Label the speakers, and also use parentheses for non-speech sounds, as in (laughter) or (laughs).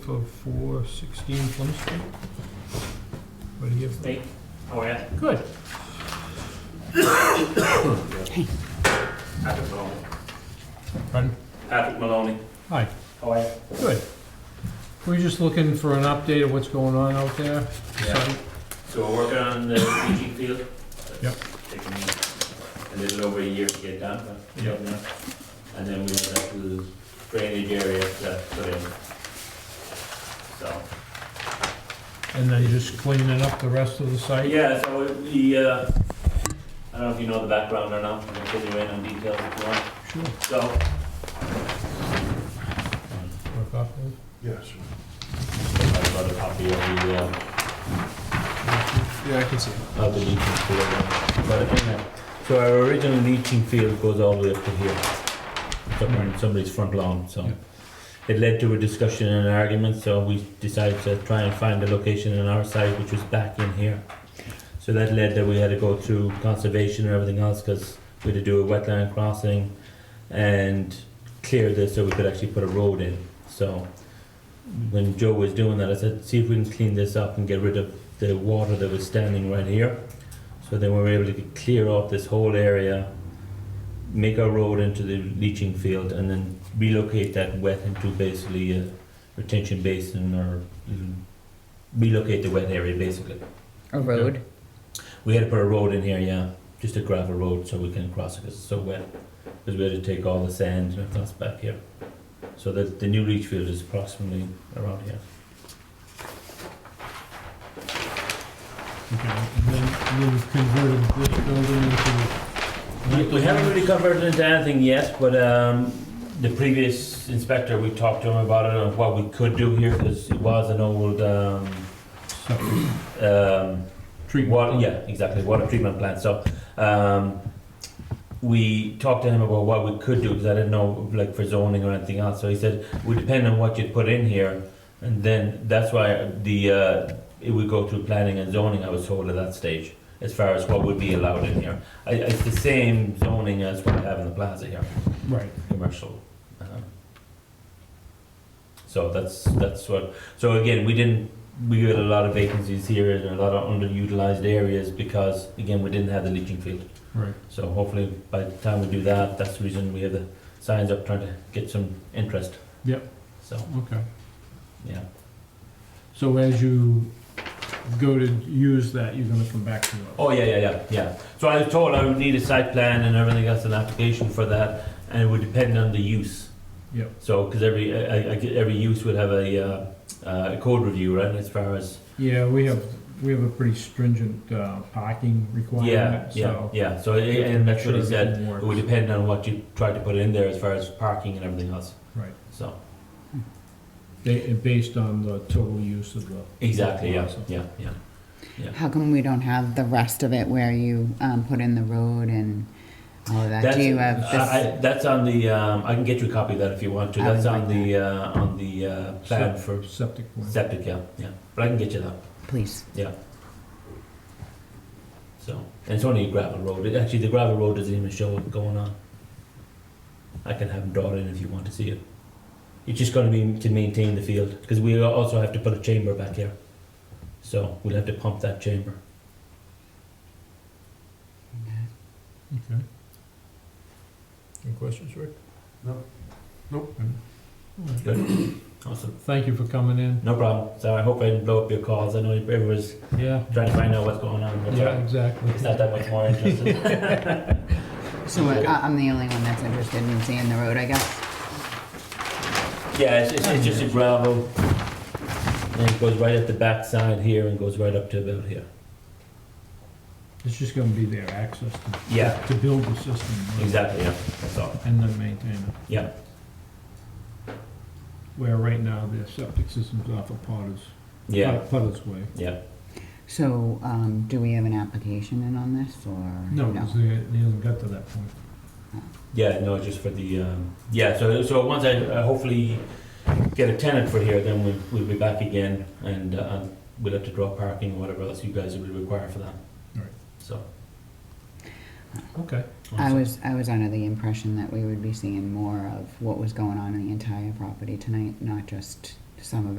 Speaker 1: for four sixteen Plum Street. What do you have?
Speaker 2: Steak? Oh, yeah? Good. Patrick Maloney.
Speaker 1: Pardon?
Speaker 2: Patrick Maloney.
Speaker 1: Hi,
Speaker 2: How are you?
Speaker 1: good. We're just looking for an update of what's going on out there.
Speaker 2: Yeah. So we're working on the PG field.
Speaker 1: Yep.
Speaker 2: Taking a little over a year to get done, but we don't know. And then we have that little drainage area to put in. So,
Speaker 1: And then just cleaning up the rest of the
Speaker 2: but
Speaker 1: site.
Speaker 2: yeah, so we- we, uh, I don't know if you know the background or not, I can fill you in on details if you want.
Speaker 1: Sure.
Speaker 2: So,
Speaker 1: Work off those.
Speaker 3: Yeah, sure.
Speaker 2: I've got a copy of the, uh,
Speaker 3: Yeah, I can see.
Speaker 2: of the leaching field. But anyway, so our original leaching field goes all the way up to here, It's up on somebody's front lawn, so.
Speaker 1: Yeah.
Speaker 2: It led to a discussion and an argument, so we decided to try and find a location on our side, which was back in here. So that led that we had to go through conservation and everything else, because we had to do a wetland crossing and clear this so we could actually put a road in, so. When Joe was doing that, I said, see if we can clean this up and get rid of the water that was standing right here. So then we were able to clear off this whole area, make our road into the leaching field, and then relocate that wet into basically a retention basin or mm, relocate the wet area basically.
Speaker 4: A road?
Speaker 2: We had to put a road in here, yeah, just a gravel road so we can cross it 'cause it's so wet. Because we had to take all the sand and everything else back here. So the, the new leach field is approximately around here.
Speaker 1: Okay, and then you've converted this building into.
Speaker 2: We we haven't really converted into anything yet, but um, the previous inspector, we talked to him about it, on what we could do here, because it was an old, um,
Speaker 1: Septic
Speaker 2: um,
Speaker 1: treatment.
Speaker 2: Water, yeah, exactly, water treatment plant, so, um, we talked to him about what we could do, because I didn't know, like, for zoning or anything else, so he said, we depend on what you put in here, and then, that's why the, uh, it would go through planning and zoning, I was told at that stage, as far as what would be allowed in here. I, it's the same zoning as what I have in the plaza here,
Speaker 1: Right.
Speaker 2: commercial. uh, So that's, that's what, so again, we didn't, we had a lot of vacancies here and a lot of underutilized areas because, again, we didn't have the leaching field.
Speaker 1: Right.
Speaker 2: So hopefully by the time we do that, that's the reason we have the signs up trying to get some interest.
Speaker 1: Yep.
Speaker 2: So,
Speaker 1: Okay.
Speaker 2: yeah,
Speaker 1: So as you go to use that, you're gonna come back to us.
Speaker 2: oh, yeah, yeah, yeah, yeah. So I was told I would need a site plan and everything else, an application for that, and it would depend on the use.
Speaker 1: Yep.
Speaker 2: So, because every, e, I- I- I- every use would have a, uh, uh, a code review, right, as far as
Speaker 1: Yeah, we have, we have a pretty stringent uh, parking
Speaker 2: Yeah,
Speaker 1: requirement,
Speaker 2: yeah,
Speaker 1: so.
Speaker 2: yeah, so, it- and that's what he said, it would depend on what you try to put in there as far as parking and everything else,
Speaker 1: Right,
Speaker 2: so.
Speaker 1: Ba- and based on the total use of the.
Speaker 2: Exactly, yeah,
Speaker 1: Awesome.
Speaker 2: yeah, yeah.
Speaker 4: How come we don't have the rest of it where you um, put in the road and all of that?
Speaker 2: That's-
Speaker 4: Do you have
Speaker 2: I-
Speaker 4: this?
Speaker 2: I- That's on the, um, I can get you a copy of that if you want to,
Speaker 4: I would
Speaker 2: that's on
Speaker 4: like
Speaker 2: the, uh, on the, uh, plan for
Speaker 1: Septic plan.
Speaker 2: septic, yeah, yeah, but I can get you that,
Speaker 4: Please.
Speaker 2: so. And it's only a gravel road, It- actually, the gravel road doesn't even show it going on. I can have them draw it in if you want to see it. It's just gonna be to maintain the field, because we also have to put a chamber back here. So we'll have to pump that chamber.
Speaker 1: Okay. Any questions, Rick?
Speaker 3: No. Nope.
Speaker 1: All right.
Speaker 2: Good. Awesome.
Speaker 1: Thank you for coming in.
Speaker 2: No problem. So I hope I didn't blow up your calls. I know everyone's
Speaker 1: Yeah,
Speaker 2: trying to find out what's going on. but
Speaker 1: yeah, exactly.
Speaker 2: It's not that much more interesting. (laughs)
Speaker 4: So I- I'm the only one that's interested in seeing the road, I guess.
Speaker 2: yeah, it's, it's, it's just a gravel. And it goes right at the back side here and goes right up to about here.
Speaker 1: It's just gonna be their access to,
Speaker 2: Yeah,
Speaker 1: to build the system. right?
Speaker 2: exactly. Yeah, that's all.
Speaker 1: And then maintain it.
Speaker 2: Yeah.
Speaker 1: Where right now their septic system's off of Potter's,
Speaker 2: Yeah,
Speaker 1: Potter's Way.
Speaker 2: yeah.
Speaker 4: So um, do we have an application in on this or?
Speaker 1: No, 'cause they, they haven't got to that point.
Speaker 2: Yeah, no, just for the. Um, yeah, so, so once I uh, hopefully get a tenant for here, then we'll, we'll be back again and uh, we'll have to draw parking or whatever else you guys will require for that.
Speaker 1: Right.
Speaker 2: So.
Speaker 1: Okay.
Speaker 4: I was, I was under the impression that we would be seeing more of what was going on in the entire property tonight, not just some of it.